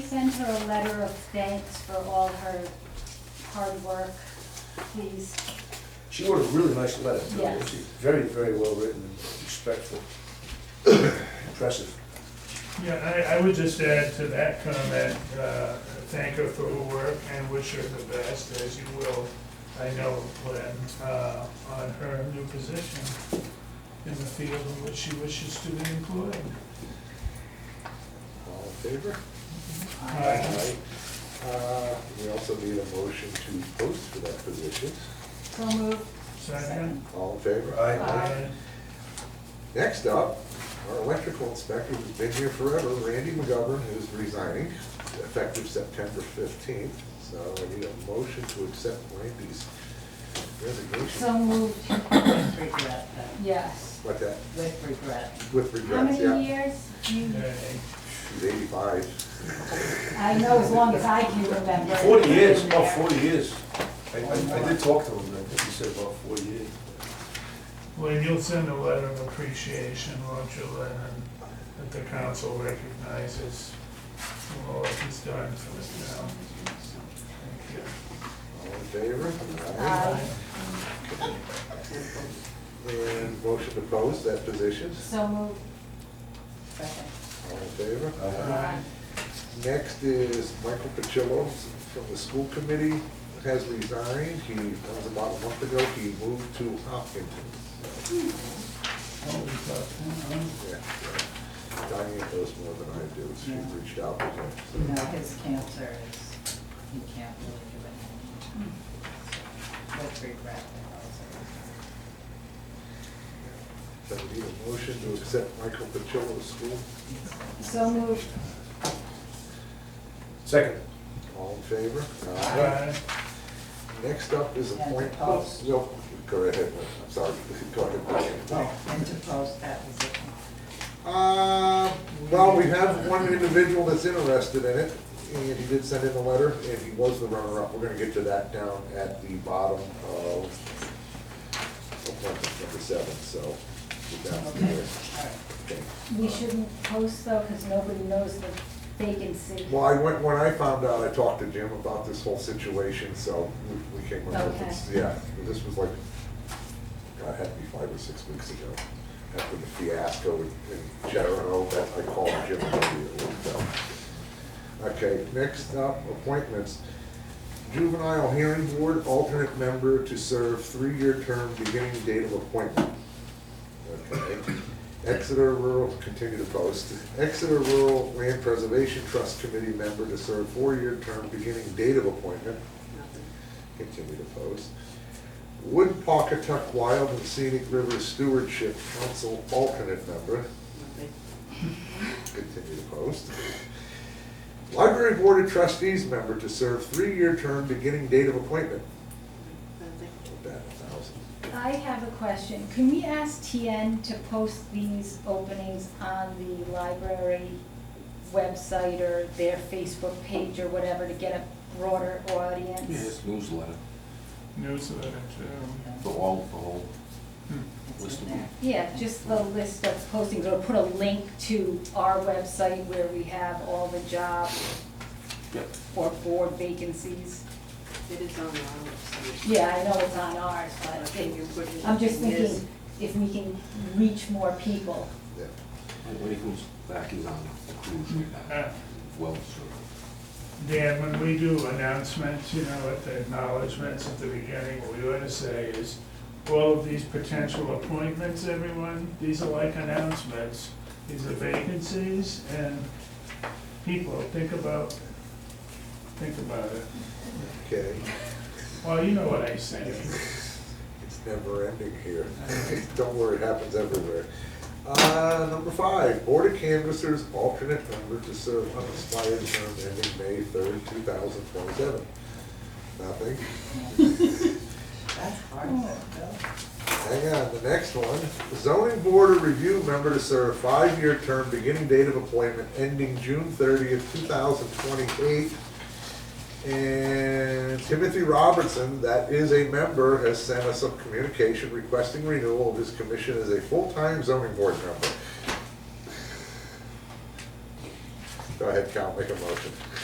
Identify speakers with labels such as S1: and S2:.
S1: send her a letter of thanks for all her hard work, please?
S2: She wrote a really nice letter, too.
S1: Yes.
S2: She's very, very well written, and respectful, impressive.
S3: Yeah, I, I would just add to that comment, uh, thank her for her work and wish her the best, as you will, I know, Lynn, uh, on her new position in the field in which she wishes to be employed.
S4: All in favor?
S3: Aye.
S4: Uh, We also need a motion to post for that position.
S1: So moved.
S3: Second?
S4: All in favor?
S1: Aye.
S4: Next up, our electrical inspector who's been here forever, Randy McGovern, who's resigning, effective September fifteenth. So I need a motion to accept Randy's resignation.
S5: So moved. With regret, though.
S1: Yes.
S4: What that,
S5: With regret.
S4: with
S1: How
S4: regrets,
S1: many
S4: yeah.
S1: years? You-
S3: Okay.
S4: She's eighty-five.
S1: I know as long as I can remember.
S2: Forty years, about forty years. I, I I did talk to him, and I think he said about forty years.
S3: Well, you'll send a letter of appreciation, won't you, Lynn, and that the council recognizes all that he's done for this town. Thank you.
S4: All in favor?
S1: Aye.
S4: And motion to post that position.
S1: So moved.
S5: Second.
S4: All in favor?
S2: Aye.
S4: Next is Michael Pacillo from the school committee, has resigned. He, that was about a month ago, he moved to Hopkinton.
S3: Oh, we thought, uh,
S4: Yeah, yeah. Diane knows more than I do, she
S5: Yeah.
S4: reached out to him. so.
S5: You know, his cancer is, he can't really do anything. With regret.
S4: So we need a motion to accept Michael Pacillo to school.
S1: So moved.
S2: Second.
S4: All in favor?
S3: Aye.
S4: Next up is
S5: And to
S4: appoint.
S5: post.
S4: No, go ahead, I'm sorry, go ahead.
S5: Oh, and to post that position.
S4: Uh, well, we have one individual that's interested in it, and he did send in a letter, and he was the runner-up. We're gonna get to that down at the bottom of appointment number seven, so we're down to
S5: Okay,
S4: there.
S5: all right.
S4: Okay.
S1: We shouldn't post though, because nobody knows the vacancy.
S4: Well, I went, when I found out, I talked to Jim about this whole situation, so we- we came up with this,
S1: Okay.
S4: yeah. This was like, God, it had to be five or six weeks ago, after the fiasco in in General, that I called Jim. immediately, so. Okay, next up, appointments. Juvenile Hearing Board, alternate member to serve three-year term, beginning date of appointment. Okay. Exeter Rural, continue to post. Exeter Rural Land Preservation Trust Committee member to serve four-year term beginning date of appointment. Continue to post. Wood Pawcatuck Wild and Scenic River Stewardship Council alternate member. Continue to post. Library Board of Trustees member to serve three-year term beginning date of appointment. Put that in a thousand.
S1: I have a question. Can we ask TN to post these openings on the library website or their Facebook page or whatever to get a broader audience?
S6: Yes, newsletter,
S3: Newsletter too. Hmm.
S6: the all, the whole,
S5: It's
S6: List
S5: in
S6: of
S5: there.
S1: Yeah, just the list of postings, or put a link to our website where we have all the job
S6: yep.
S1: or board vacancies.
S7: It is on our website.
S1: Yeah, I know it's on ours,
S7: I
S1: but
S7: think you put it.
S1: I'm just
S7: in this.
S1: thinking if we can reach more people.
S4: Yeah.
S6: When he comes back, he's on a cruise right now,
S3: Uh,
S6: well served.
S3: Dan, when we do announcements, you know, at the acknowledgements at the beginning, what we ought to say is, all of these potential appointments, everyone, these are like announcements. These are vacancies, and people, think about, think about it.
S4: Okay.
S3: Well, you know what I'm saying.
S4: It's never ending here. Don't worry, it happens everywhere. Uh, number five, Board of Canvassers alternate member to serve unexpired term ending May third, two thousand twenty-seven. Nothing.
S5: That's hard, though, Bill.
S4: Hang on, the next one, zoning board of review member to serve five-year term beginning date of appointment ending June thirtieth, two thousand twenty-eight. And Timothy Robertson, that is a member, has sent us a communication requesting renewal of his commission as a full-time zoning board member. Go ahead, Cal, make a motion.